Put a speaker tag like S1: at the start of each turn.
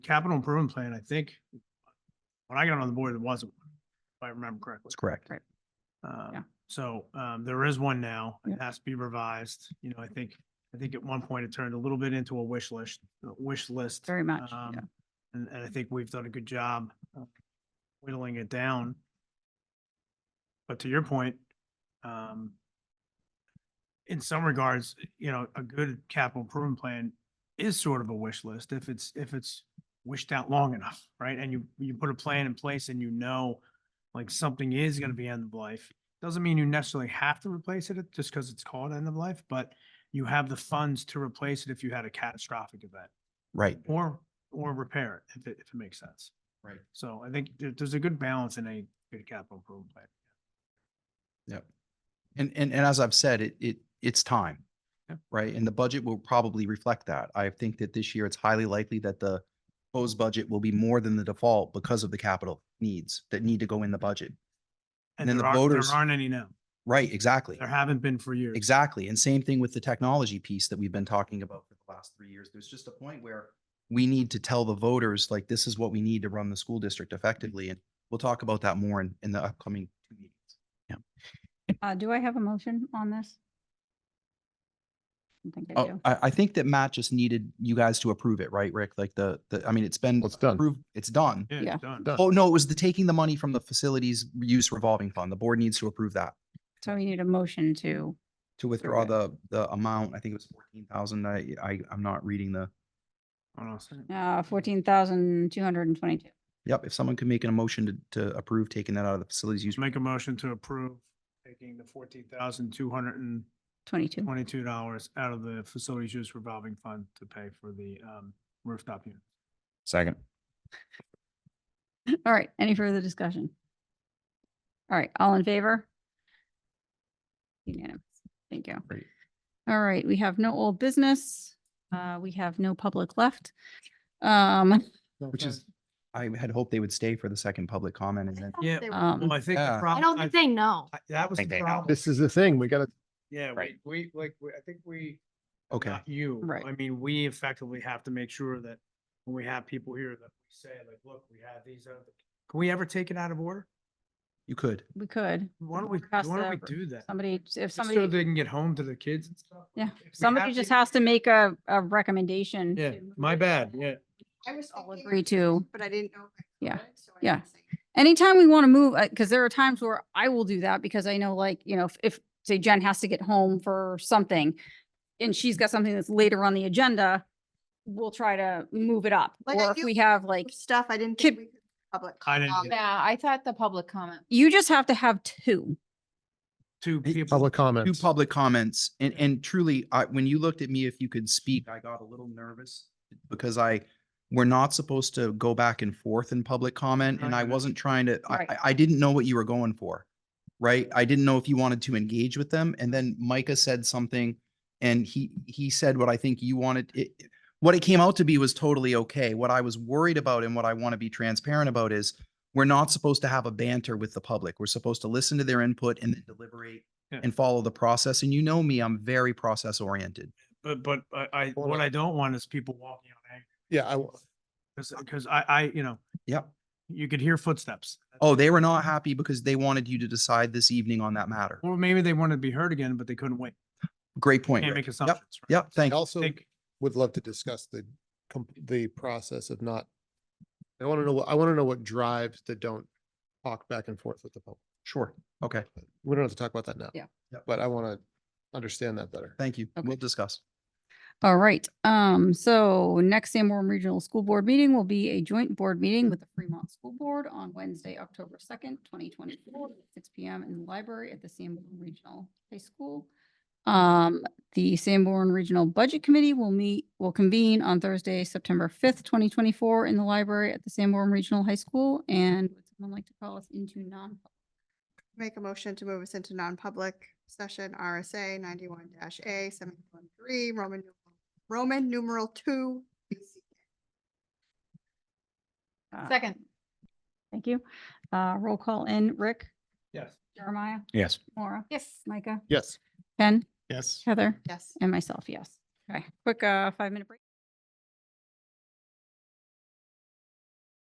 S1: capital improvement plan, I think, when I got on the board, there wasn't, one, if I remember correctly.
S2: That's correct.
S1: Um, So um, there is one now. It
S3: Yeah.
S1: has to be revised. You know, I think, I think at one point it turned a little bit into a wish list, a wish list.
S3: very much.
S1: Um,
S3: yeah.
S1: And, and I think we've done a good job of whittling it down. But to your point, um, in some regards, you know, a good capital improvement plan is sort of a wish list if it's, if it's wished out long enough, right? And you, you put a plan in place and you know, like something is going to be end of life. Doesn't mean you necessarily have to replace it just because it's called end of life, but you have the funds to replace it if you had a catastrophic event
S2: Right.
S1: or, or repair it, if it, if it makes sense.
S2: Right.
S1: So I think there, there's a good balance in a good capital improvement plan.
S2: Yep. And, and, and as I've said, it, it, it's time.
S1: Yep.
S2: Right? And the budget will probably reflect that. I think that this year it's highly likely that the proposed budget will be more than the default because of the capital needs that need to go in the budget. And then
S1: there
S2: the
S1: aren't-
S2: voters-
S1: There aren't any now.
S2: Right, exactly.
S1: There haven't been for years.
S2: Exactly. And same thing with the technology piece that we've been talking about for the last three years. There's just a point where we need to tell the voters, like, this is what we need to run the school district effectively. And we'll talk about that more in, in the upcoming two meetings.
S3: Uh, do I have a motion on this? I think I
S2: Oh,
S3: do.
S2: I, I think that Matt just needed you guys to approve it, right, Rick? Like the, the, I mean, it's been
S4: Well, it's done.
S2: approved, it's done.
S1: Yeah,
S3: Yeah.
S1: it's done.
S4: Done.
S2: Oh, no, it was the taking the money from the facilities use revolving fund. The board needs to approve that
S3: So we need a motion to,
S2: to withdraw
S3: Okay.
S2: the, the amount. I think it was fourteen thousand. I, I, I'm not reading the,
S1: Hold on a second.
S3: uh, fourteen thousand two hundred and twenty-two.
S2: yep, if someone could make an motion to, to approve taking that out of the facilities use.
S1: Just make a motion to approve taking the fourteen thousand two hundred and
S3: Twenty-two.
S1: twenty-two dollars out of the facilities use revolving fund to pay for the, um, rooftop unit.
S4: Second.
S3: All right, any further discussion? All right, all in favor? Unanimous, thank you.
S2: Great.
S3: All right, we have no old business, uh, we have no public left. Um,
S2: Which is, I had hoped they would stay for the second public comment and then,
S1: Yeah,
S3: um,
S1: Well, I think.
S2: Yeah.
S1: the
S2: I
S1: prob-
S5: I don't think they know.
S1: I- That was
S4: Think
S1: the
S4: they know.
S1: problem.
S4: This is the thing. We gotta,
S1: Yeah, we,
S4: Right.
S1: we, like, we- I think we.
S2: okay,
S1: Not you.
S3: Right.
S1: I mean, we effectively have to make sure that when we have people here that we say like, look, we have these other, can we ever take it out of order?
S2: you could.
S3: we could,
S1: Why don't we, why
S3: Pass
S1: don't we
S3: the-
S1: do that?
S3: somebody, if
S1: Just So
S3: somebody,
S1: they can get home to the kids and stuff.
S3: Yeah,
S1: If we
S3: somebody
S1: have
S3: just
S1: to-
S3: has to make a, a recommendation.
S1: Yeah,
S3: to move
S1: my
S3: it.
S1: bad, yeah.
S6: I was
S3: all
S6: thinking
S3: agree
S6: of doing
S3: to-
S6: it, But I didn't know. if I
S3: Yeah,
S6: could, so I
S3: yeah.
S6: didn't say.
S3: anytime we want to move, because there are times where I will do that because I know like, you know, if- if, say Jen has to get home for something and she's got something that's later on the agenda, we'll try to move it up.
S6: Like, I
S3: Or if
S6: do
S3: we have like,
S6: Stuff I didn't
S3: Kid-
S6: think we could public.
S1: I didn't
S6: comment.
S1: get
S7: Yeah, I thought the public comment.
S3: you just have to have two.
S1: Two
S2: Hey,
S1: people.
S4: public
S2: Two
S4: comments.
S2: public comments and, and truly, I, when you looked at me, if you could speak, I got a little nervous because I, we're not supposed to go back and forth in public comment and I
S1: Right.
S2: wasn't trying to, I,
S3: Right.
S2: I- I didn't know what you were going for. Right? I didn't know if you wanted to engage with them. And then Micah said something and he, he said what I think you wanted. It, it- what it came out to be was totally okay. What I was worried about and what I want to be transparent about is we're not supposed to have a banter with the public. We're supposed to listen to their input and then deliberate
S1: Yeah.
S2: and follow the process. And you know me, I'm very process oriented.
S1: But, but I, I,
S4: Hold
S1: what
S4: on.
S1: I don't want is people walking on egg.
S4: Yeah, I, will-
S1: Cause, 'cause I, I, you know,
S2: Yep.
S1: you could hear footsteps.
S2: Oh, they were not happy because they wanted you to decide this evening on that matter.
S1: Or maybe they wanted to be heard again, but they couldn't wait.
S2: Great point.
S1: Can't
S2: Rick.
S1: make assumptions. right?
S2: Yep,
S4: I
S2: thank you.
S4: also
S1: Think-
S4: would love to discuss the, com- the process of not, I want to know, what I want to know what drives the don't talk back and forth with the public.
S2: Sure. Okay,
S4: We don't have to talk about that now.
S3: Yeah.
S2: Yep.
S4: But I want to understand that better.
S2: thank you. We'll
S3: Okay.
S2: discuss.
S3: All right, um, so next Sanborn Regional School Board meeting will be a joint board meeting with the Fremont School Board on Wednesday, October second, twenty twenty-four, six P M in the library at the Sanborn Regional High School. Um, the Sanborn Regional Budget Committee will meet, will convene on Thursday, September fifth, twenty twenty-four in the library at the Sanborn Regional High School. And would someone like to call us into non?
S6: Make a motion to move us into non-public session, RSA ninety-one dash A, seven-one three, Roman, numeral- Roman numeral two.
S7: Second.
S3: Thank you. Uh, roll call in, Rick,
S1: Yes.
S3: Jeremiah,
S4: Yes.
S3: Maura,
S7: Yes.
S3: Micah,
S4: Yes.
S3: Ken,
S4: Yes.
S3: Heather.
S6: Yes.
S3: And myself, yes. Okay, quick, uh, five minute break.